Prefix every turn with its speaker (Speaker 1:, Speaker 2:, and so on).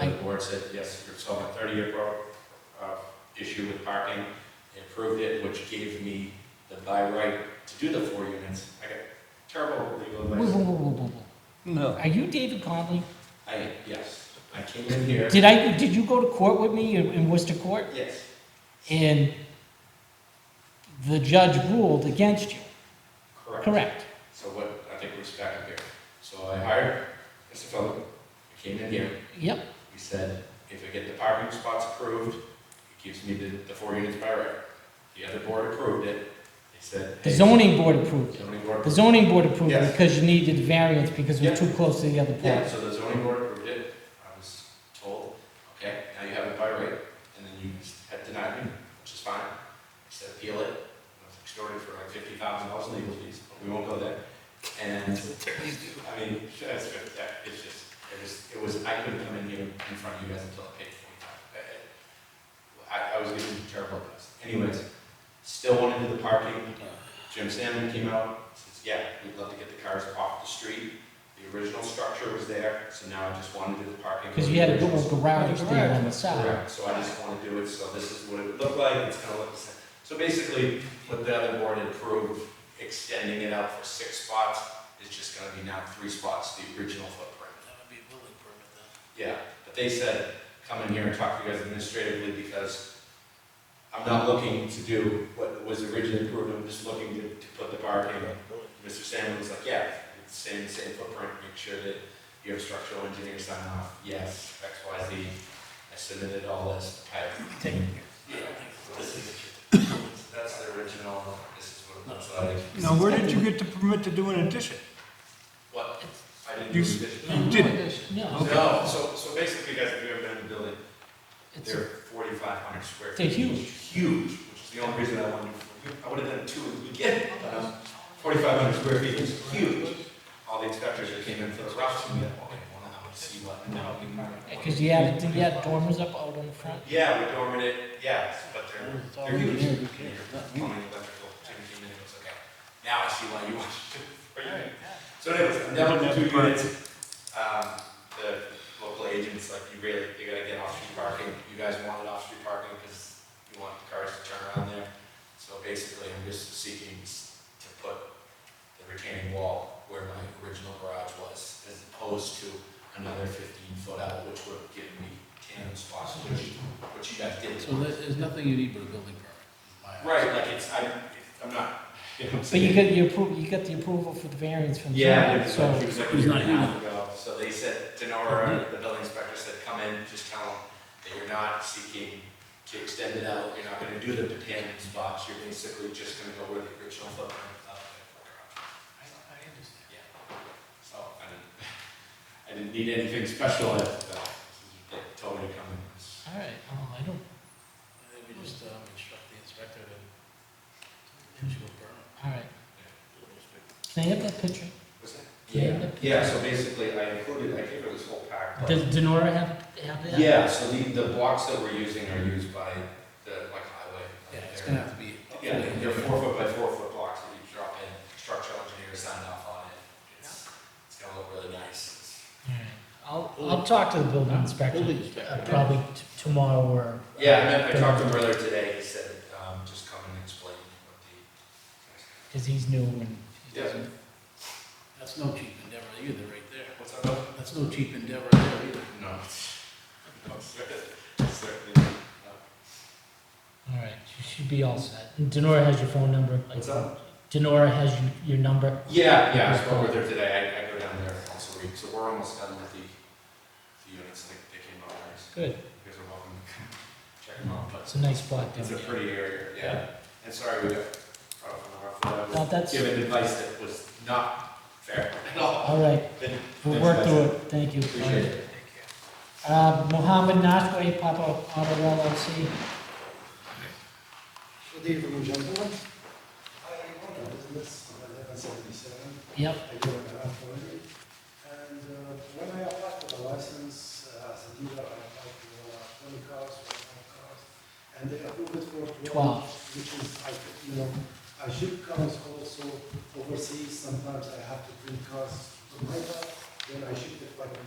Speaker 1: And the board said, yes, you're solving a thirty-year pro, uh, issue with parking, They approved it, which gave me the by right to do the four units. I got terrible legal
Speaker 2: Whoa, whoa,
Speaker 1: advice.
Speaker 2: whoa, whoa, whoa, whoa.
Speaker 3: No.
Speaker 2: Are you David Conley?
Speaker 1: I, yes, I came in here,
Speaker 2: Did I, did you go to court with me in in Worcester Court?
Speaker 1: yes,
Speaker 2: And the judge ruled against you,
Speaker 1: correct.
Speaker 2: correct?
Speaker 1: So what, I think we're back up here. So I hired Mr. Phillip, I came in here,
Speaker 2: Yep,
Speaker 1: he said, if I get the parking spots approved, it gives me the, the four units by right. The other board approved it, they said.
Speaker 2: the
Speaker 1: hey,
Speaker 2: zoning board approved it.
Speaker 1: Zoning board
Speaker 2: The
Speaker 1: approved it.
Speaker 2: zoning board approved it
Speaker 1: Yes.
Speaker 2: because you needed variance because it was
Speaker 1: Yeah.
Speaker 2: too close to the other
Speaker 1: Yeah,
Speaker 2: part.
Speaker 1: so the zoning board approved it, I was told, okay, now you have it by right, and then you had denied me, which is fine. I said appeal it, I was extorted for like fifty thousand dollars in legal fees, but we won't go there. And, I mean, that's, that, it's just, it was, it was, I couldn't come in here in front of you guys until I paid forty thousand. Uh, I, I was getting terrible advice. Anyways, still wanted to do the parking, Jim Salmon came out, says, yeah, we'd love to get the cars off the street. The original structure was there, so now I just wanted to do the parking.
Speaker 2: Because you had a
Speaker 1: Original
Speaker 2: little garage there on the side.
Speaker 1: Correct, so I just wanna do it, so this is what it would look like, it's gonna look the same. So basically, what the other board had approved, extending it out for six spots, is just gonna be now three spots, the original footprint.
Speaker 3: That would be a building permit then.
Speaker 1: Yeah, but they said, come in here and talk to you guys administratively, because I'm not looking to do what was originally approved, I'm just looking to, to put the parking. Mr. Salmon was like, yeah, it's the same, same footprint, make sure that you have structural engineer sign off, yes, X, Y, Z. I submitted all this, I Yeah, this is, that's the original, this is what it looks like.
Speaker 4: Now, where did you get the permit to do an addition?
Speaker 1: What, I didn't do
Speaker 4: You-
Speaker 1: this.
Speaker 4: you didn't.
Speaker 2: No,
Speaker 1: No, so, so basically, guys, if you ever been in the building,
Speaker 2: it's,
Speaker 1: They're forty-five hundred square
Speaker 2: they're
Speaker 1: feet.
Speaker 2: huge.
Speaker 1: Huge, which is the only reason I wanted, I would have done two in the beginning, but forty-five hundred square feet is huge. All the inspectors that came in for the rough, and they all they wanted to see what, no. we want to-"
Speaker 2: Because you had, you had dormers up out on the front.
Speaker 1: Yeah, we dormed it, yes, but they're,
Speaker 3: It's
Speaker 1: they're
Speaker 3: already
Speaker 1: huge.
Speaker 3: there,
Speaker 1: Your
Speaker 3: who cares?
Speaker 1: plumbing, electrical, Jimmy came in and was like, "Okay, now I see why you want to do it for you." So anyways, I'm down to two units. Um, the local agents, like, you really, you gotta get off-street parking. You guys wanted off-street parking because you want the cars to turn around there. So basically, I'm just seeking s- to put the retaining wall where my original garage was, as opposed to another fifteen foot out, which would give me ten spots, which, which you guys did.
Speaker 3: So there- there's nothing you need but a building permit. in my eyes.
Speaker 1: Right, like, it's, I, I'm not, you know what I'm
Speaker 2: But
Speaker 1: saying?
Speaker 2: you got your approval, you got the approval for the variance from.
Speaker 1: Yeah, it
Speaker 2: zoning,
Speaker 1: was
Speaker 2: so-
Speaker 1: like, it was like a
Speaker 3: He's
Speaker 1: year
Speaker 3: not
Speaker 1: and a half ago, so they said, Denora, the building inspector said, come in, just tell them that you're not seeking to extend it out, you're not gonna do the tandem spots, you're basically just gonna go where the original footprint of the garage.
Speaker 3: I I understand.
Speaker 1: Yeah. So, I didn't, I didn't need anything special, I, they told me to come in.
Speaker 2: All right, oh, I don't,
Speaker 3: Maybe just um, instruct the inspector to issue a permit.
Speaker 2: all right. Can I have that picture?
Speaker 1: What's that?
Speaker 2: Yeah.
Speaker 1: Yeah, yeah, so basically, I included, I gave her this whole pack, but.
Speaker 2: Does Denora have, have that?
Speaker 1: Yeah, so the, the blocks that we're using are used by the, like highway.
Speaker 3: Yeah, it's
Speaker 1: They're-
Speaker 3: gonna have to be.
Speaker 1: Yeah, they're four foot by four foot blocks that you drop in, structural engineer signed off on it. It's, it's gonna look really nice.
Speaker 2: All right. I'll, I'll talk to the building inspector,
Speaker 3: Building
Speaker 2: uh,
Speaker 3: inspector.
Speaker 2: probably t- tomorrow or.
Speaker 1: Yeah, I meant, I talked to him earlier today, he said, um, just come and explain what the.
Speaker 2: Because he's new and.
Speaker 1: Yeah.
Speaker 3: That's no cheap endeavor either, right there.
Speaker 1: What's up, Bill?
Speaker 3: That's no cheap endeavor there either.
Speaker 1: No. No, sir. Certainly not.
Speaker 2: All right, you should be all set. And Denora has your phone number.
Speaker 1: What's up?
Speaker 2: Denora has your, your number.
Speaker 1: Yeah, yeah, I spoke with her today, I, I go down there once a week, so we're almost done with the, the units, like, they came out nice.
Speaker 2: Good.
Speaker 1: You guys are welcome to come check them out, but
Speaker 2: It's a nice block down
Speaker 1: it's a
Speaker 2: there.
Speaker 1: pretty area, yeah. And sorry, we got caught up on our foot. I was
Speaker 2: No, Uh, that's-
Speaker 1: given advice that was not fair at all.
Speaker 2: All right,
Speaker 1: Then-
Speaker 2: we'll
Speaker 1: then
Speaker 2: work
Speaker 1: that's
Speaker 2: through it. Thank you.
Speaker 1: Appreciate it.
Speaker 2: Uh, Mohammed Nasri, Papa Auto LLC.
Speaker 5: Good evening, gentlemen. I own a business on eleven seventy-seven,
Speaker 2: Yep,
Speaker 5: I do an affiliate. And uh, when I applied for the license uh, as a dealer, I applied for uh, twenty cars or five cars. And they approved it for twelve,
Speaker 2: Twelve.
Speaker 5: which is, I, you know, I ship cars also overseas, sometimes I have to